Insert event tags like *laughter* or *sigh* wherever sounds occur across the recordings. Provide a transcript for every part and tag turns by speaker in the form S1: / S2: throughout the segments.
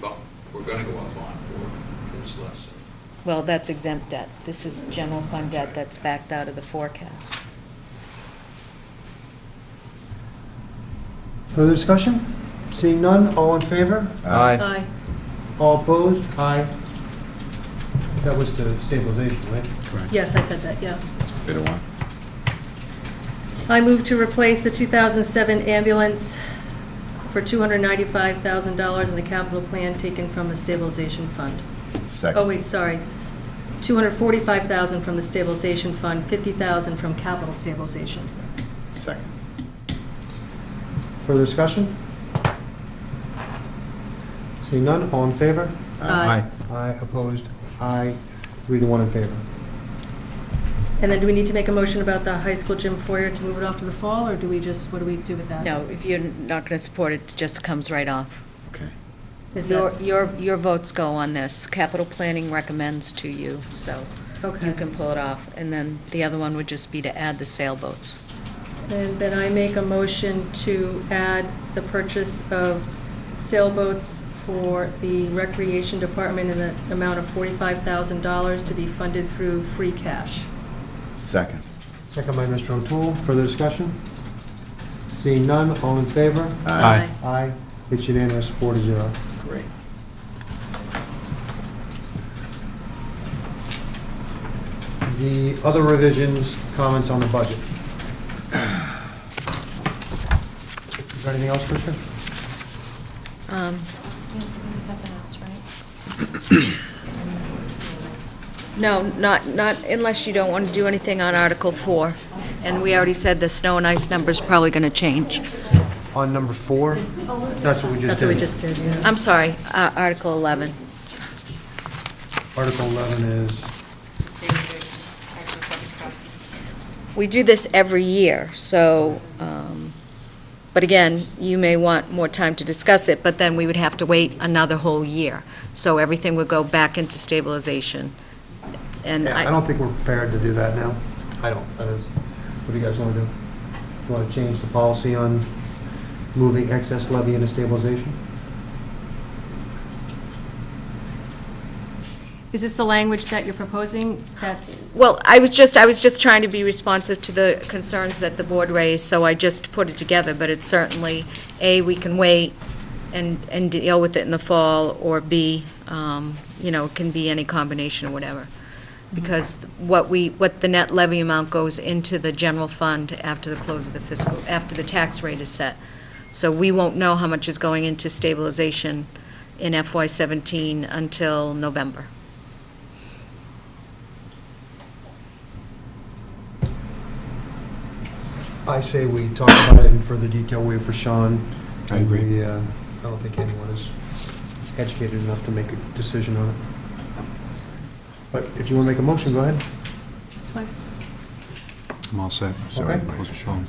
S1: bump, we're gonna go up on for this lesson.
S2: Well, that's exempt debt. This is general fund debt that's backed out of the forecast.
S3: Further discussion? Seeing none, all in favor?
S4: Aye.
S3: All opposed? Aye. That was the stabilization, right?
S5: Yes, I said that, yeah.
S4: Bit of one.
S5: I move to replace the 2007 ambulance for $295,000 in the capital plan taken from the stabilization fund.
S4: Second.
S5: Oh, wait, sorry. 245,000 from the stabilization fund, 50,000 from capital stabilization.
S4: Second.
S3: Further discussion? Seeing none, all in favor?
S5: Aye.
S3: Aye, opposed? Aye, three to one in favor.
S5: And then do we need to make a motion about the high school gym foyer to move it off to the fall, or do we just, what do we do with that?
S2: No, if you're not going to support it, it just comes right off.
S4: Okay.
S5: Is
S2: Your,
S5: that-
S2: your, your votes go on this. Capital planning recommends to you, so you
S5: Okay.
S2: can pull it off. And then the other one would just be to add the sailboats.
S5: And then I make a motion to add the purchase of sailboats for the Recreation Department in the amount of $45,000 to be funded through free cash.
S4: Second.
S3: Second by Mr. O'Toole, further discussion? Seeing none, all in favor?
S4: Aye.
S3: Aye, it's unanimous, four to zero.
S4: Great.
S3: The other revisions, comments on the budget. Is there anything else, Richard?
S2: Um,
S6: right?
S2: No, not, not unless you don't want to do anything on Article 4. And we already said the snow and ice number's probably going to change.
S3: On number four, that's what we just
S5: That's what we
S3: did.
S5: just did, yeah.
S2: I'm sorry, uh, Article 11.
S3: Article 11 is,
S2: We do this every year, so, um, but again, you may want more time to discuss it, but then we would have to wait another whole year. So everything would go back into stabilization. And
S3: yeah, I don't
S2: I,
S3: think we're prepared to do that now. I don't, that is, what do you guys want to do? You Want to change the policy on moving excess levy into stabilization?
S5: Is this the language that you're proposing? That's,
S2: well, I was just, I was just trying to be responsive to the concerns that the board raised, so I just put it together, but it's certainly, A, we can wait and, and deal with it in the fall, or B, um, you know, it can be any combination or whatever. because what we, what the net levy amount goes into the general fund after the close of the fiscal, after the tax rate is set. So we won't know how much is going into stabilization in FY '17 until November.
S3: I say we talk about it in further detail, we have for Sean.
S4: I agree.
S3: We, uh, I don't think anyone is educated enough to make a decision on it. But if you want to make a motion, go ahead.
S7: I'm all set.
S3: Sorry.
S7: Those are shown.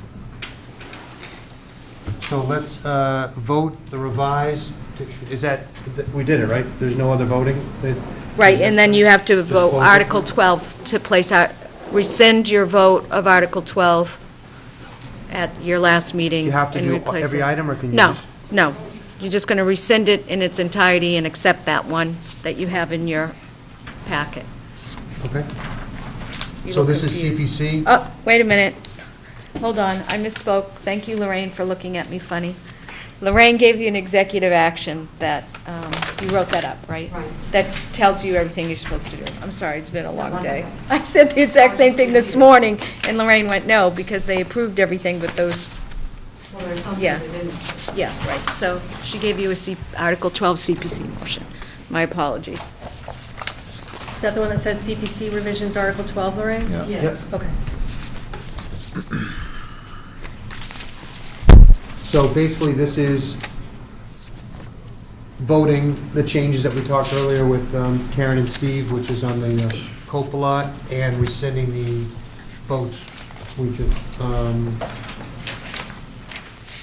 S3: So let's uh, vote the revised, is that, we did it, right? There's no other voting? that-
S2: Right, and then you have to
S3: Just
S2: vote
S3: close it.
S2: Article 12 to place out, rescind your vote of Article 12 at your last meeting.
S3: You have to
S2: and
S3: do
S2: replace
S3: every
S2: it.
S3: item, or can you
S2: No,
S3: just-
S2: no. You're just going to rescind it in its entirety and accept that one that you have in your packet.
S3: Okay,
S2: You
S3: so
S2: look
S3: this is
S2: confused.
S3: CPC?
S2: Oh, wait a minute. Hold on, I misspoke. Thank you, Lorraine, for looking at me funny. Lorraine gave you an executive action that, um, you wrote that up, right?
S6: Right.
S2: That tells you everything you're supposed to do. I'm sorry, it's been a long
S6: that's
S2: day.
S6: okay.
S2: *laughs* I said the exact same thing this
S6: Obviously.
S2: morning, and Lorraine went, no, because they approved everything but those,
S6: Well, there's something
S2: Yeah.
S6: that didn't.
S2: yeah, right. So she gave you a C, Article 12 CPC motion. My apologies.
S5: is that the one that says CPC revisions, Article 12, Lorraine?
S4: Yeah.
S6: Yeah.
S3: Yep.
S5: Okay.
S3: So basically, this is voting the changes that we talked earlier with um, Karen and Steve, which is on the uh, COPA lot, and rescinding the votes we just, um,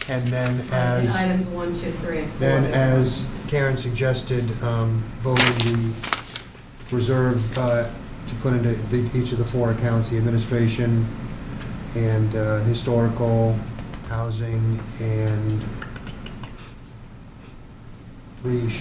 S3: and then as...
S6: Items one, two, three, and four.
S3: Then, as Karen suggested, um, voting the reserve uh, to put into the- each of the four accounts, the administration and uh, historical, housing, and three